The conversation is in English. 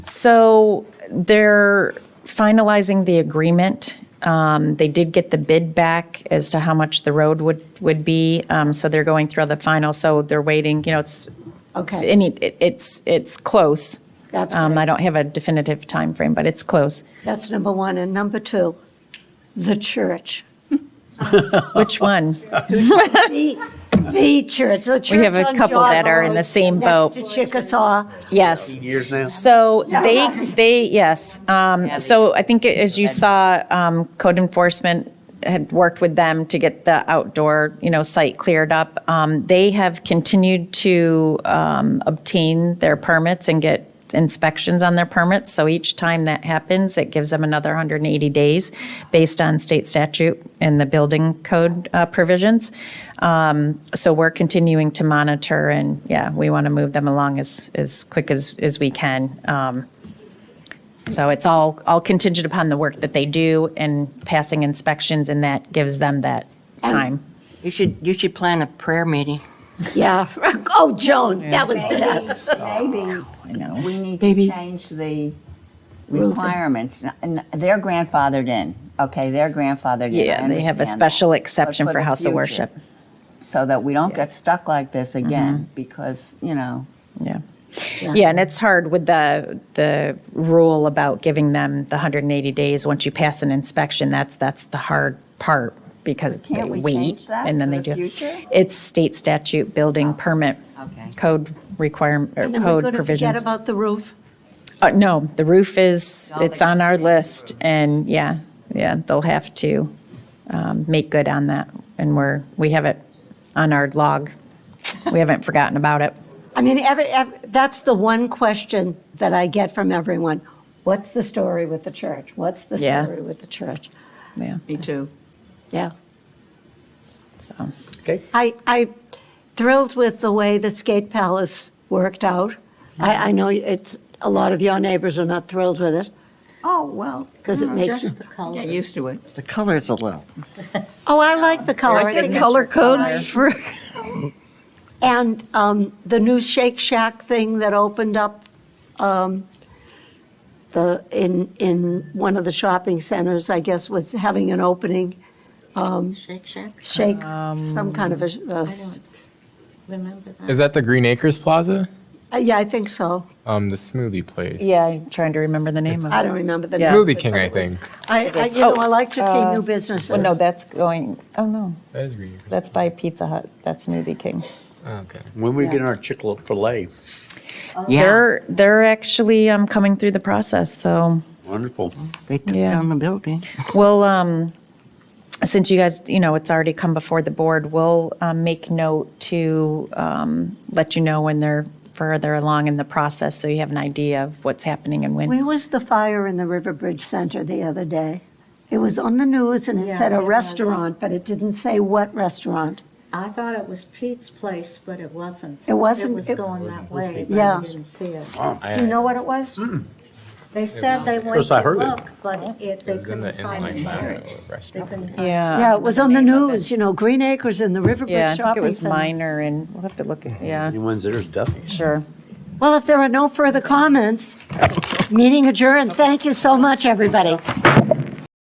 So they're finalizing the agreement. Um, They did get the bid back as to how much the road would, would be, Um, so they're going through the final, so they're waiting, you know, it's, Okay, any, it- it's, it's close. That's Um, great. I don't have a definitive time frame, but it's close. that's number one. And number two, the church. Which one? The, the church, the church have a on couple Java that are in Road the same boat. Next to Chickasaw. Yes. years now? So they, they, yes. Um, So I think as you saw, um, code enforcement had worked with them to get the outdoor, you know, site cleared up. Um, They have continued to um, obtain their permits and get inspections on their permits. So each time that happens, it gives them another 180 days based on state statute and the building code uh, provisions. Um, So we're continuing to monitor and, yeah, we want to move them along as, as quick as, as we can. Um, So it's all, all contingent upon the work that they do and passing inspections and that gives them that time. You should, you should plan a prayer meeting. Yeah. Oh, Joan, that was bad. Maybe, maybe I know. we need Maybe. to change the requirements. N- n- They're grandfathered in, okay, they're grandfathered in. I Yeah, they have a understand that. special exception for for the House of future. Worship. Mm-hmm. So that we don't get stuck like this again, because, you know, Yeah. Yeah, and it's hard with the, the rule about giving them the 180 days. Once you pass an inspection, that's, that's the hard part because But they can't we wait. change that And then for they the do. future? Oh, It's state statute, building permit, Okay. code requirement, or And then we're code going to forget provisions. about the roof. Uh, No, the roof is, All it's they- on our list and yeah, yeah, they'll have to um, make good on that. And we're, we have it on our log. We haven't forgotten about it. I mean, every, ev that's the one question that I get from everyone. What's the story with the church? What's the Yeah. story with the church? Yeah, me too. Yeah. so. I, I thrilled with the way the skate palace worked out. I, I know it's, a lot of your neighbors are not thrilled with it. Oh, well. 'Cause it mm, makes- just Get used to it. The color's a little. Oh, I like the color. I think it's- codes for. And um, the new Shake Shack thing that opened up um, the, in, in one of the shopping centers, I guess, was having an opening, um, Shake Shack, shake, Um, some kind of a- a, s- remember that? Is that the Green Acres Plaza? uh, yeah, I think so. Um, the smoothie place. Yeah, I'm trying to remember the name of I it. don't remember the Yeah. Oh, uh, name. Smoothie King, I think. I, I- you know, I like to see new businesses. Well, no, that's going, oh, no, That is Green Acres. that's by Pizza Hut. That's Smoothie King. Oh, okay. When we get our chicken filet, Yeah, They're, they're actually um, coming through the process, so wonderful. they took Yeah. down the building. we'll, um, since you guys, you know, it's already come before the board, we'll um, make note to um, let you know when they're further along in the process, so you have an idea of what's happening and when. Where was the fire in the Riverbridge Center the other day? It was on the news and it said it a was. restaurant, but it didn't say what restaurant. I thought it was Pete's place, but it wasn't. It wasn't- It was it- going that way, but Yeah. I didn't see it. Do you know what it was? They said they went course, I to heard it. look, but it, they It was in couldn't the find inline it. lab They restaurant. couldn't find it. Yeah. Yeah, it was on the news, you know, Green Acres in the Yeah, Riverbridge I think it Shopping was Center. minor, and we'll have to look, at yeah, Anyone's there is Duffy's. sure. Well, if there are no further comments, meeting adjourned. Thank you so much, everybody.